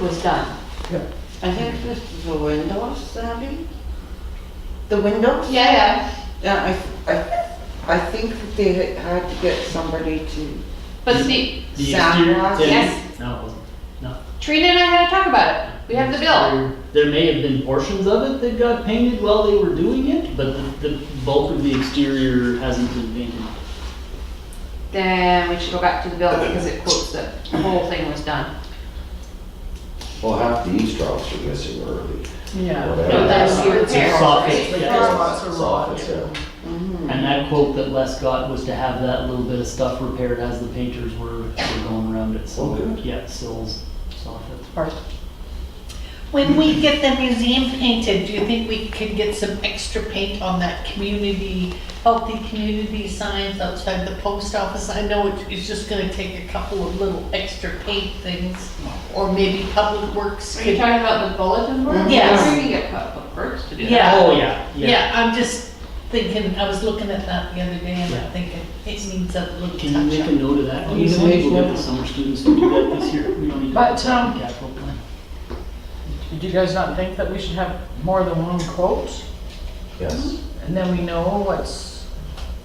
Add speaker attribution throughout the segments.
Speaker 1: was done.
Speaker 2: Yeah.
Speaker 1: I think this is the windows, Abby? The windows?
Speaker 3: Yeah, yeah,
Speaker 1: Yeah, I, I, I think that they had- had to get somebody to,
Speaker 3: but Steve,
Speaker 4: The
Speaker 1: Sidewalk,
Speaker 4: exterior, did-
Speaker 3: yes.
Speaker 4: No.
Speaker 3: Trina and I had to talk about it. We have the bill.
Speaker 4: There- There may have been portions of it that got painted while they were doing it, but the, the bulk of the exterior hasn't been painted.
Speaker 3: Then we should go back to the bill because it quotes that the whole thing was done.
Speaker 5: Well, half the eavesdrops are missing early.
Speaker 4: Yeah,
Speaker 5: Oh,
Speaker 3: that's your
Speaker 4: It's
Speaker 3: repair,
Speaker 4: a soffit,
Speaker 3: right?
Speaker 4: yeah.
Speaker 5: Soffits, yeah.
Speaker 4: And that quote that Les got was to have that little bit of stuff repaired as the painters were, were going around it,
Speaker 5: Oh,
Speaker 4: so,
Speaker 5: good.
Speaker 4: yeah, sills, soffits.
Speaker 6: When we get the museum painted, do you think we could get some extra paint on that community, healthy community signs outside the post office? I know it- it's just gonna take a couple of little extra paint things, or maybe Public Works
Speaker 3: Are you
Speaker 6: could.
Speaker 3: talking about the bulletin board?
Speaker 6: Yes.
Speaker 3: We can get public works to do that.
Speaker 6: Yeah.
Speaker 4: Oh, yeah, yeah.
Speaker 6: Yeah, I'm just thinking, I was looking at that the other day and
Speaker 4: Yeah.
Speaker 6: I'm thinking, it needs a little
Speaker 4: Can you make a
Speaker 6: touch up.
Speaker 4: note of that?
Speaker 2: Can you
Speaker 4: please?
Speaker 2: make
Speaker 4: We'll get
Speaker 2: one?
Speaker 4: the summer students to do that this year. We don't need to.
Speaker 7: But, um,
Speaker 4: Capital plan.
Speaker 7: Do you guys not think that we should have more than one quote?
Speaker 5: Yes,
Speaker 7: And then we know what's,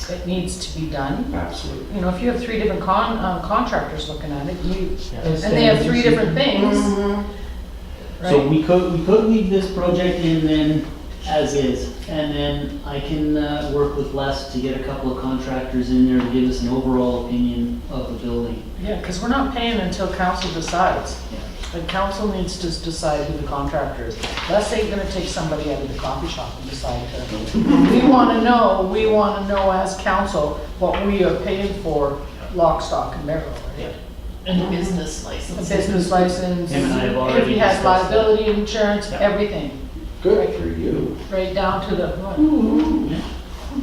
Speaker 7: it needs to be done?
Speaker 5: absolutely.
Speaker 7: You know, if you have three different con, uh, contractors looking at it, you,
Speaker 4: Yeah.
Speaker 7: and they have three different things,
Speaker 4: So
Speaker 7: right?
Speaker 4: we could, we could leave this project in then as is, and then I can uh, work with Les to get a couple of contractors in there to give us an overall opinion of the building.
Speaker 7: Yeah, because we're not paying until council decides.
Speaker 4: Yeah.
Speaker 7: The council needs to decide who the contractor is. Let's say you're gonna take somebody out of the coffee shop and decide to, we want to know, we want to know as council what we are paying for lock, stock, and barrel, right?
Speaker 6: And a business license.
Speaker 7: a business license,
Speaker 4: Him and I have already
Speaker 7: if he has
Speaker 4: discussed that.
Speaker 7: liability insurance,
Speaker 4: Yeah.
Speaker 7: everything,
Speaker 5: Good for you.
Speaker 7: right down to the,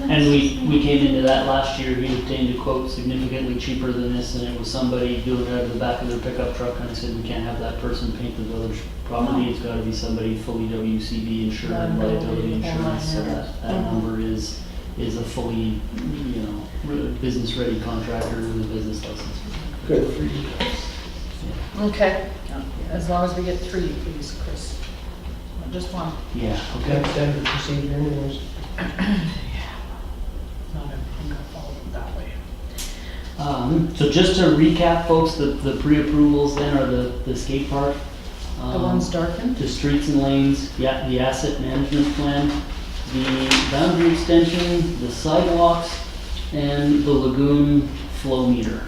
Speaker 4: And we, we came into that last year, we obtained a quote significantly cheaper than this, and it was somebody doing it out of the back of their pickup truck, and I said, we can't have that person paint the village property, it's gotta be somebody fully WCB insured, and liability insurance, so that, that
Speaker 7: Mm-hmm.
Speaker 4: number is, is a fully, you know, business-ready contractor with a business license.
Speaker 5: Good for you.
Speaker 7: okay. As long as we get three, please, Chris. Not Just one,
Speaker 4: Yeah, okay.
Speaker 2: That's standard procedure anyways.
Speaker 7: not everything got followed that way.
Speaker 4: Um, so just to recap, folks, the, the pre-approvals then are the, the skate park.
Speaker 7: The
Speaker 4: um,
Speaker 7: one's darkened?
Speaker 4: The streets and lanes, yeah, the asset management plan, the boundary extension, the sidewalks, and the lagoon flow meter.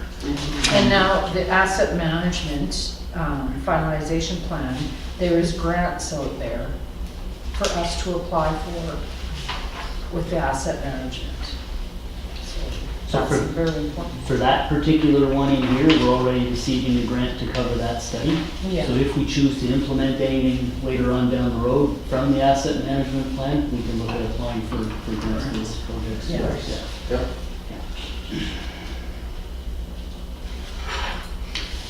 Speaker 7: And now the asset management um, finalization plan, there is grants out there for us to apply for with the asset management. So
Speaker 4: So
Speaker 7: that's
Speaker 4: for-
Speaker 7: very important.
Speaker 4: For that particular one in here, we're already receiving a grant to cover that study.
Speaker 7: Yeah.
Speaker 4: So if we choose to implement anything later on down the road from the asset management plan, we can look at applying for, for grants for this project.
Speaker 7: Yeah.
Speaker 4: Yeah.
Speaker 5: Yep.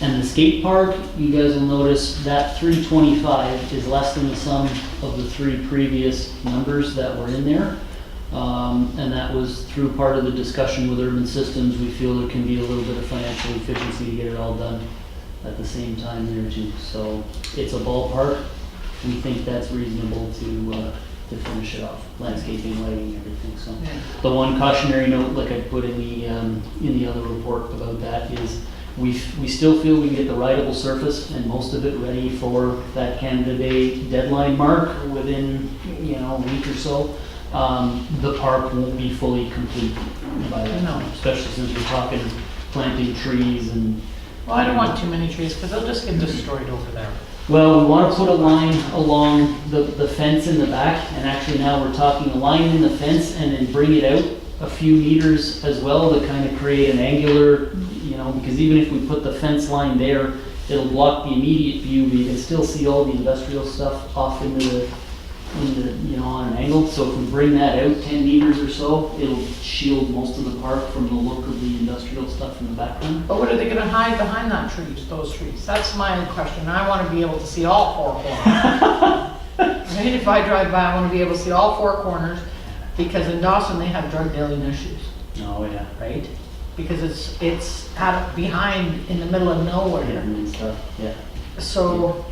Speaker 4: And the skate park, you guys will notice that three twenty-five is less than the sum of the three previous numbers that were in there. Um, and that was through part of the discussion with Urban Systems, we feel there can be a little bit of financial efficiency to get it all done at the same time there too. So it's a ballpark, we think that's reasonable to, uh, to finish it off, landscaping, lighting, everything, so. The one cautionary note, like I put in the, um, in the other report about that, is we, we still feel we can get the rideable surface and most of it ready for that Canada Day deadline mark within, you know, a week or so. Um, the park won't be fully complete by that
Speaker 7: No.
Speaker 4: time, especially since we're talking planting trees and
Speaker 7: Well, I don't want too many trees, because they'll just get destroyed over there.
Speaker 4: Well, we want to put a line along the, the fence in the back, and actually now we're talking a line in the fence and then bring it out a few meters as well to kind of create an angular, you know, because even if we put the fence line there, it'll block the immediate view, but you can still see all the industrial stuff off into the, into, you know, on an angle. So if we bring that out ten meters or so, it'll shield most of the park from the look of the industrial stuff in the background.
Speaker 7: But what are they gonna hide behind that trees, those trees? That's my question. I wanna be able to see all four corners. Right, if I drive by, I wanna be able to see all four corners, because in Dawson, they have drug dealing issues,
Speaker 4: Oh, yeah.
Speaker 7: right? Because it's, it's out behind, in the middle of nowhere.
Speaker 4: And stuff, yeah.
Speaker 7: So